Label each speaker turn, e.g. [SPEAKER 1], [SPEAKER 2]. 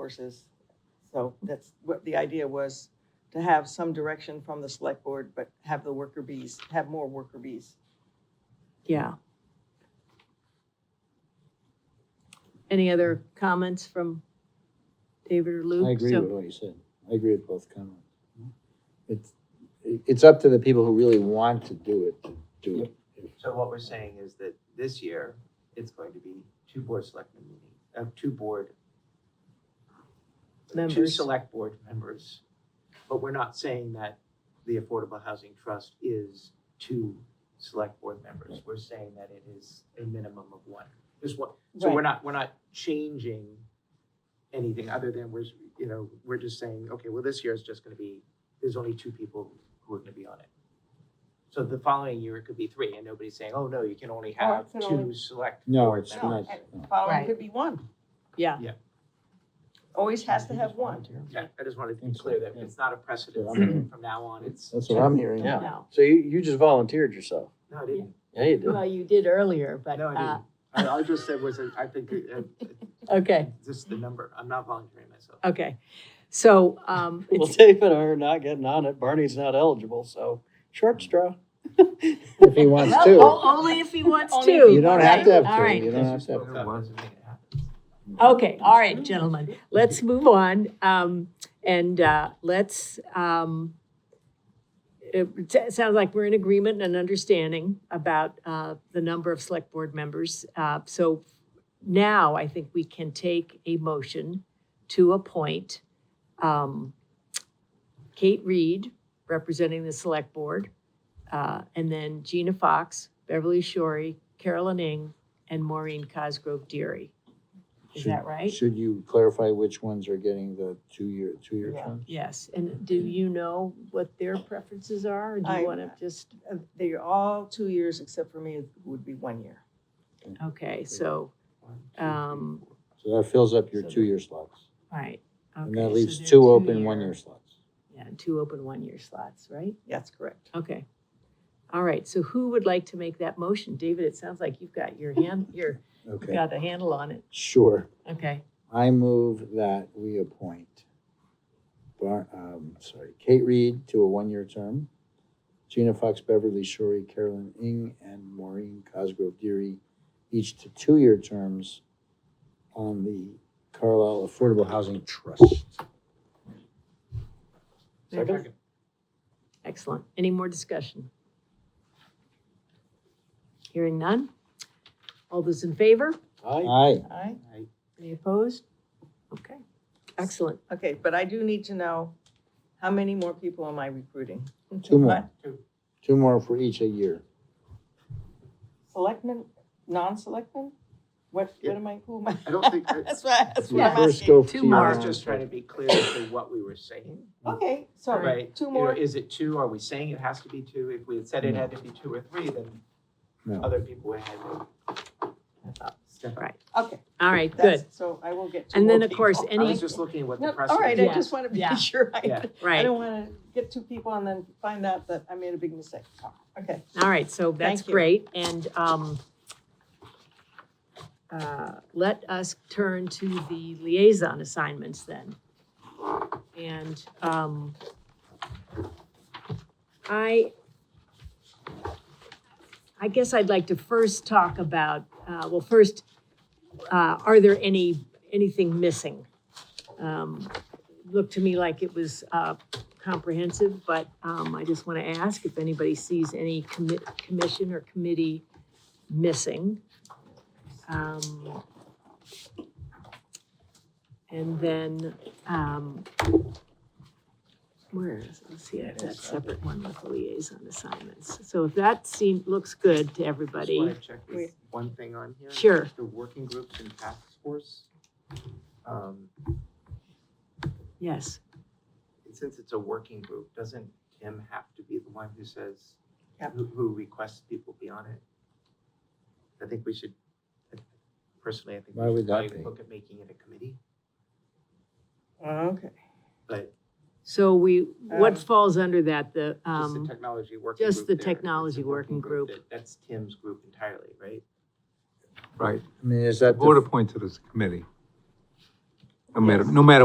[SPEAKER 1] courses. So that's what the idea was, to have some direction from the select board, but have the worker bees, have more worker bees.
[SPEAKER 2] Yeah. Any other comments from David or Luke?
[SPEAKER 3] I agree
[SPEAKER 2] So-
[SPEAKER 3] with what you said. I agree with both comments. It's, it's up to the people who really want to do it, to do it.
[SPEAKER 4] So what we're saying is that this year, it's going to be two board selectmen meeting, uh, two board. Two
[SPEAKER 2] Members.
[SPEAKER 4] select board members, but we're not saying that the Affordable Housing Trust is two select board members. We're saying that it is a minimum of one, just one. So we're not, we're not changing anything other than we're, you know, we're just saying, okay, well, this year is just gonna be, there's only two people who are gonna be on it. So the following year, it could be three, and nobody's saying, oh, no, you can only
[SPEAKER 1] Oh,
[SPEAKER 4] have
[SPEAKER 1] it can
[SPEAKER 4] two
[SPEAKER 1] only-
[SPEAKER 4] select.
[SPEAKER 3] No,
[SPEAKER 4] board
[SPEAKER 3] it's
[SPEAKER 4] members."
[SPEAKER 3] not.
[SPEAKER 1] The Following
[SPEAKER 5] Right.
[SPEAKER 1] could be one.
[SPEAKER 2] Yeah.
[SPEAKER 4] Yeah.
[SPEAKER 1] Always has to have one.
[SPEAKER 4] Yeah, I just wanted to be
[SPEAKER 3] Think so,
[SPEAKER 4] clear that
[SPEAKER 3] yeah.
[SPEAKER 4] it's not a precedent
[SPEAKER 3] Yeah, I'm-
[SPEAKER 4] from now on, it's,
[SPEAKER 3] That's what I'm hearing.
[SPEAKER 6] Yeah.
[SPEAKER 2] No.
[SPEAKER 6] So you, you just volunteered yourself.
[SPEAKER 4] no, I didn't,
[SPEAKER 6] Yeah, you
[SPEAKER 2] Well, you did earlier, but,
[SPEAKER 4] no, I
[SPEAKER 2] uh,
[SPEAKER 4] didn't. I, I just said was, I think, uh,
[SPEAKER 2] okay,
[SPEAKER 4] just the number, I'm not volunteering myself.
[SPEAKER 2] okay. So, um,
[SPEAKER 6] Well,
[SPEAKER 2] it's,
[SPEAKER 6] David and I are not getting on it. Barney's not eligible, so short straw.
[SPEAKER 3] If he wants
[SPEAKER 2] well,
[SPEAKER 3] to.
[SPEAKER 2] o- only if he wants
[SPEAKER 1] Only
[SPEAKER 2] to.
[SPEAKER 1] if he
[SPEAKER 3] You don't have
[SPEAKER 2] right?
[SPEAKER 3] to have
[SPEAKER 2] All
[SPEAKER 3] two.
[SPEAKER 2] right.
[SPEAKER 3] You don't have to have.
[SPEAKER 4] Doesn't mean it happened.
[SPEAKER 2] Okay, all right, gentlemen, let's move on, um, and, uh, let's, um, it s- sounds like we're in agreement and understanding about, uh, the number of select board members. Uh, so now I think we can take a motion to appoint, um, Kate Reed, representing the select board, uh, and then Gina Fox, Beverly Shorey, Carolyn Ing, and Maureen Cosgrove Deary. Is that
[SPEAKER 3] Should-
[SPEAKER 2] right?
[SPEAKER 3] Should you clarify which ones are getting the two-year, two-year
[SPEAKER 1] Yeah.
[SPEAKER 3] terms?
[SPEAKER 2] Yes, and do you know what their preferences are, or do
[SPEAKER 1] I-
[SPEAKER 2] you want to just,
[SPEAKER 1] Uh, They're all two years, except for me, it would be one year.
[SPEAKER 2] okay, so,
[SPEAKER 4] One, two, three,
[SPEAKER 2] Um,
[SPEAKER 4] four.
[SPEAKER 3] So that fills up your
[SPEAKER 6] So that-
[SPEAKER 3] two-year slots.
[SPEAKER 2] all right.
[SPEAKER 3] And
[SPEAKER 2] okay,
[SPEAKER 3] that
[SPEAKER 2] so
[SPEAKER 3] leaves
[SPEAKER 2] they're
[SPEAKER 3] two open,
[SPEAKER 2] two-year-
[SPEAKER 3] one-year slots.
[SPEAKER 2] Yeah, and two open one-year slots, right?
[SPEAKER 1] That's correct.
[SPEAKER 2] Okay. All right, so who would like to make that motion? David, it sounds like you've got your hand, your,
[SPEAKER 3] Okay,
[SPEAKER 2] got a handle on it.
[SPEAKER 3] sure.
[SPEAKER 2] Okay,
[SPEAKER 3] I move that we appoint, Bar, um, sorry, Kate Reed to a one-year term, Gina Fox Beverly Shorey, Carolyn Ing, and Maureen Cosgrove Deary, each to two-year terms on the Carlisle Affordable Housing Trust.
[SPEAKER 6] Second?
[SPEAKER 2] excellent. Any more discussion? Hearing none? All those in favor?
[SPEAKER 6] Aye.
[SPEAKER 3] Aye.
[SPEAKER 1] Aye.
[SPEAKER 4] I-
[SPEAKER 2] Any opposed? Okay, excellent.
[SPEAKER 1] Okay, but I do need to know, how many more people am I recruiting?
[SPEAKER 3] Two more.
[SPEAKER 4] Two.
[SPEAKER 3] Two more for each a year.
[SPEAKER 1] Selectmen, non-selectmen? What, what am I, who am I?
[SPEAKER 4] I don't think, I-
[SPEAKER 1] That's why, that's
[SPEAKER 3] You
[SPEAKER 1] what I'm
[SPEAKER 2] Yeah.
[SPEAKER 3] first
[SPEAKER 1] asking.
[SPEAKER 3] go
[SPEAKER 2] Two
[SPEAKER 3] to your
[SPEAKER 4] I was
[SPEAKER 2] more.
[SPEAKER 4] just trying to be clear as to what we were saying.
[SPEAKER 1] Okay, sorry,
[SPEAKER 4] Mm. Right,
[SPEAKER 1] two
[SPEAKER 4] You know,
[SPEAKER 1] more.
[SPEAKER 4] Is it two? Are we saying it has to be two? If we had said it had to be two or three, then
[SPEAKER 3] No.
[SPEAKER 4] other people would have to step up.
[SPEAKER 2] Right.
[SPEAKER 1] Okay.
[SPEAKER 2] All right,
[SPEAKER 1] that's-
[SPEAKER 2] good,
[SPEAKER 1] So I will get two
[SPEAKER 2] And
[SPEAKER 1] more
[SPEAKER 2] then, of course,
[SPEAKER 1] people.
[SPEAKER 4] I
[SPEAKER 2] Any-
[SPEAKER 4] was just looking at what the
[SPEAKER 1] No,
[SPEAKER 4] press.
[SPEAKER 1] all right, I
[SPEAKER 2] Yeah.
[SPEAKER 1] just want to
[SPEAKER 2] Yeah.
[SPEAKER 1] be sure. I
[SPEAKER 4] Yeah.
[SPEAKER 1] I
[SPEAKER 2] right.
[SPEAKER 1] don't want to get two people and then find out that I made a big mistake. Okay,
[SPEAKER 2] All right, so that's
[SPEAKER 1] Thank you.
[SPEAKER 2] great, and, um, uh, let us turn to the liaison assignments then. And, um, I, I guess I'd like to first talk about, uh, well, first, uh, are there any, anything missing? Um, Looked to me like it was, uh, comprehensive, but um, I just want to ask if anybody sees any commit, commission or committee missing. Um, And then, um, where is, let's see, I've got a separate one with the liaison assignments. So if that seems, looks good to
[SPEAKER 4] Just want
[SPEAKER 2] everybody,
[SPEAKER 4] to check
[SPEAKER 1] Wait.
[SPEAKER 4] this one thing on here.
[SPEAKER 2] Sure.
[SPEAKER 4] The working groups and task force. Um,
[SPEAKER 2] yes,
[SPEAKER 4] Since it's a working group, doesn't Tim have to be the one who says,
[SPEAKER 1] Yep.
[SPEAKER 4] who- who requests people be on it? I think we should, personally, I think
[SPEAKER 3] Why
[SPEAKER 4] we
[SPEAKER 3] would
[SPEAKER 4] should
[SPEAKER 3] that
[SPEAKER 4] probably
[SPEAKER 3] be?
[SPEAKER 4] look at making it a committee,
[SPEAKER 1] okay.
[SPEAKER 4] but
[SPEAKER 2] so we,
[SPEAKER 1] Um,
[SPEAKER 2] what falls under that, the,
[SPEAKER 4] just the
[SPEAKER 2] um,
[SPEAKER 4] technology working group.
[SPEAKER 2] just the
[SPEAKER 4] there, it's a
[SPEAKER 2] technology working group.
[SPEAKER 4] that- That's Tim's group entirely, right?
[SPEAKER 7] Right,
[SPEAKER 3] I mean, is
[SPEAKER 7] the
[SPEAKER 3] that,
[SPEAKER 7] board
[SPEAKER 3] the-
[SPEAKER 7] appointed as a committee. no matter, no matter